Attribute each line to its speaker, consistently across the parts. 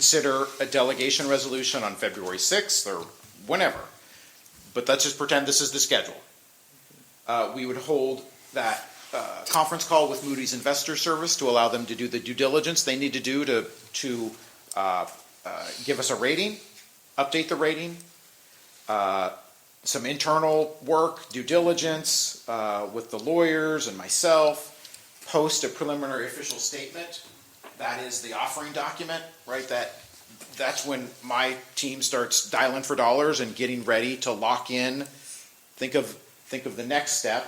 Speaker 1: consider a delegation resolution on February 6th or whenever, but let's just pretend this is the schedule. Uh, We would hold that uh, conference call with Moody's Investor Service to allow them to do the due diligence they need to do to, to uh, uh, give us a rating, update the rating, uh, some internal work, due diligence uh, with the lawyers and myself, post a preliminary official statement that is the offering document, right? That, that's when my team starts dialing for dollars and getting ready to lock in. Think of, think of the next step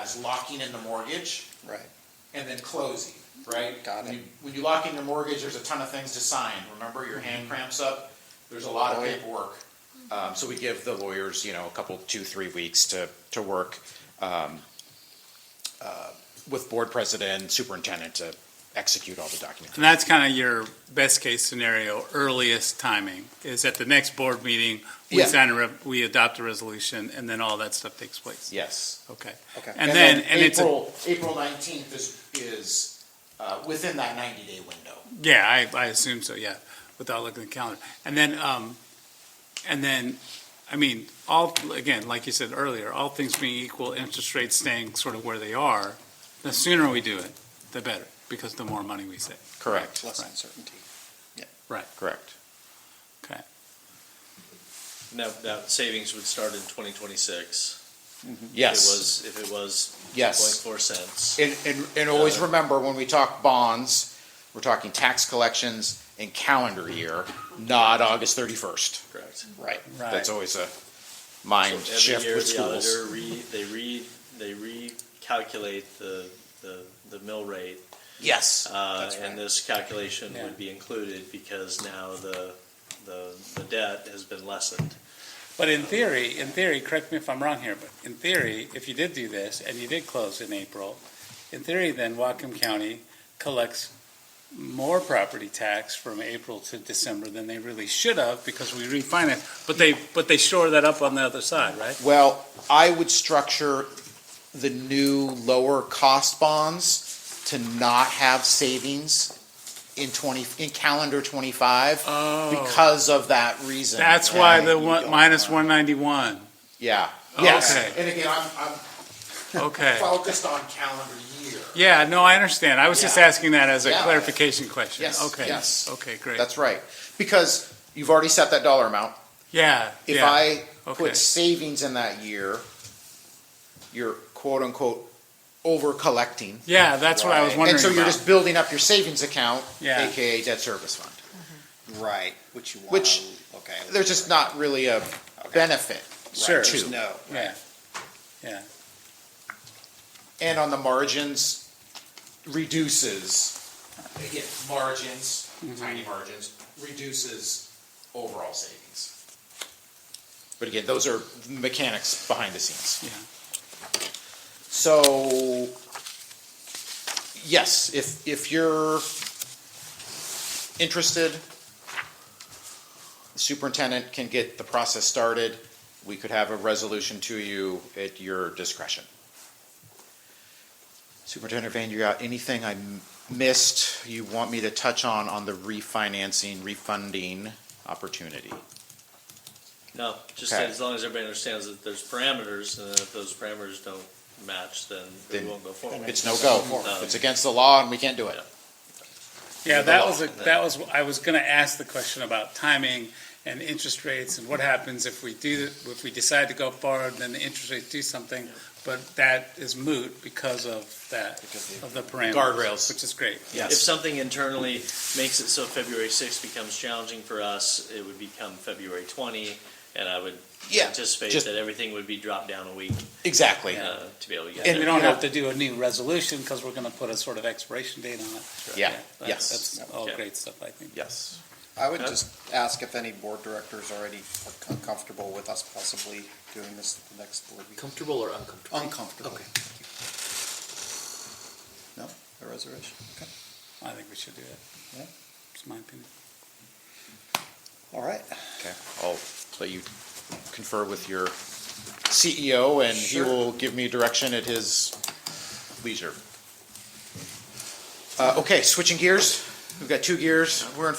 Speaker 1: as locking in the mortgage
Speaker 2: Right.
Speaker 1: and then closing, right?
Speaker 2: Got
Speaker 1: When
Speaker 2: it.
Speaker 1: you- When you lock in your mortgage, there's a ton of things to sign. Remember, your hand cramps up. There's a lot of
Speaker 2: Oh, yeah.
Speaker 1: paperwork. Mm-hmm. Um, so we give the lawyers, you know, a couple, two, three weeks to, to work, um, uh, with board president, superintendent to execute all the documents.
Speaker 3: And that's kind of your best case scenario, earliest timing, is at the next board meeting, we
Speaker 1: Yeah.
Speaker 3: sign a, re- we adopt a resolution, and then all that stuff takes place.
Speaker 1: Yes.
Speaker 3: Okay.
Speaker 2: Okay.
Speaker 3: And then, and it's, a-
Speaker 1: April, April nineteenth is, is, uh, within that ninety-day window.
Speaker 3: yeah, I, I assume so, yeah, without looking at the calendar. And then, um, and then, I mean, all, again, like you said earlier, all things being equal, interest rates staying sort of where they are, the sooner we do it, the better, because the more money we save.
Speaker 1: Correct.
Speaker 2: Less
Speaker 3: Right.
Speaker 2: uncertainty.
Speaker 1: Correct.
Speaker 3: Okay.
Speaker 4: Now, that savings would start in twenty twenty-six. If it
Speaker 1: Yes,
Speaker 4: was, if it was
Speaker 1: yes.
Speaker 4: point four cents.
Speaker 1: And, and, and always
Speaker 4: Uh,
Speaker 1: remember, when we talk bonds, we're talking tax collections in calendar year, not August thirty-first.
Speaker 4: Correct.
Speaker 2: Right.
Speaker 1: That's always a
Speaker 4: So
Speaker 1: mind
Speaker 4: every
Speaker 1: shift
Speaker 4: year,
Speaker 1: with
Speaker 4: the
Speaker 1: schools.
Speaker 4: auditor re, they re, they recalculate the, the, the mill rate.
Speaker 1: Yes.
Speaker 4: Uh,
Speaker 1: That's right.
Speaker 4: and this calculation
Speaker 3: Yeah.
Speaker 4: would be included because now the, the, the debt has been lessened.
Speaker 3: But in theory, in theory, correct me if I'm wrong here, but in theory, if you did do this and you did close in April, in theory, then Whatcom County collects more property tax from April to December than they really should have because we refinanced. But they, but they shore that up on the other side, right?
Speaker 1: Well, I would structure the new lower cost bonds to not have savings in twenty, in calendar twenty-five
Speaker 3: Oh,
Speaker 1: because of that reason.
Speaker 3: that's why
Speaker 1: And
Speaker 3: the
Speaker 1: you
Speaker 3: one,
Speaker 1: don't
Speaker 3: minus
Speaker 1: wanna-
Speaker 3: one ninety-one.
Speaker 1: Yeah, yes.
Speaker 3: Okay.
Speaker 1: And again, I'm, I'm
Speaker 3: Okay.
Speaker 1: focused on calendar year.
Speaker 3: Yeah, no, I understand. I was just
Speaker 1: Yeah.
Speaker 3: asking that as a
Speaker 1: Yeah.
Speaker 3: clarification question.
Speaker 1: Yes,
Speaker 3: Okay.
Speaker 1: yes.
Speaker 3: Okay, great.
Speaker 1: That's right. Because you've already set that dollar amount.
Speaker 3: Yeah,
Speaker 1: If
Speaker 3: yeah.
Speaker 1: I
Speaker 3: Okay.
Speaker 1: put savings in that year, you're quote unquote over collecting.
Speaker 3: Yeah, that's what I was wondering
Speaker 1: And so you're
Speaker 3: about.
Speaker 1: just building up your savings account,
Speaker 3: Yeah.
Speaker 1: AKA debt service fund.
Speaker 2: Right. Which you want.
Speaker 1: Which-
Speaker 2: okay.
Speaker 1: There's just not really a benefit.
Speaker 2: Right,
Speaker 3: Sure.
Speaker 2: There's no.
Speaker 3: Yeah,
Speaker 1: And on the margins, reduces, again, margins,
Speaker 3: Mm-hmm.
Speaker 1: tiny margins, reduces overall savings. But again, those are mechanics behind the scenes.
Speaker 3: yeah.
Speaker 1: So, yes, if, if you're interested, the superintendent can get the process started. We could have a resolution to you at your discretion. Superintendent Van, you got anything I m- missed you want me to touch on, on the refinancing, refunding opportunity?
Speaker 4: No, just
Speaker 1: Okay.
Speaker 4: as long as everybody understands that there's parameters and that if those parameters don't match, then we
Speaker 1: Then
Speaker 4: won't go forward.
Speaker 1: It's no go.
Speaker 4: No.
Speaker 1: It's against the law and we can't do it.
Speaker 3: Yeah,
Speaker 4: the
Speaker 3: that
Speaker 4: law.
Speaker 3: was, a- that was, I was gonna ask the question about timing and interest rates and what happens if we do, if we decide to go forward, then the interest rates do something, but that is moot because of that, of the parameters.
Speaker 1: Guardrails.
Speaker 3: Which is great.
Speaker 4: If something internally makes it so February sixth becomes challenging for us, it would become February twenty, and I would
Speaker 1: Yeah,
Speaker 4: anticipate
Speaker 1: just-
Speaker 4: that everything would be dropped down a week
Speaker 1: Exactly.
Speaker 4: uh, to be able to get
Speaker 3: And
Speaker 4: there.
Speaker 3: we don't
Speaker 1: Yeah.
Speaker 3: have to do a new resolution, because we're gonna put a sort of expiration date on it.
Speaker 1: Yeah,
Speaker 3: that-
Speaker 1: yes.
Speaker 3: That's all
Speaker 4: Yeah.
Speaker 3: great stuff, I think.
Speaker 1: Yes.
Speaker 2: I would
Speaker 4: Huh?
Speaker 2: just ask if any board directors already are com- comfortable with us possibly doing this at the next board meeting.
Speaker 5: Comfortable or uncomfortable?
Speaker 2: Uncomfortable.
Speaker 5: Okay.
Speaker 2: No, a reservation. Okay.
Speaker 3: I think we should do it.
Speaker 2: Yeah.
Speaker 3: It's my opinion.
Speaker 2: All right.
Speaker 1: Okay, I'll let you confer with your CEO, and he
Speaker 2: Sure.
Speaker 1: will give me direction at his leisure. Uh, okay, switching gears, we've got two gears, we're in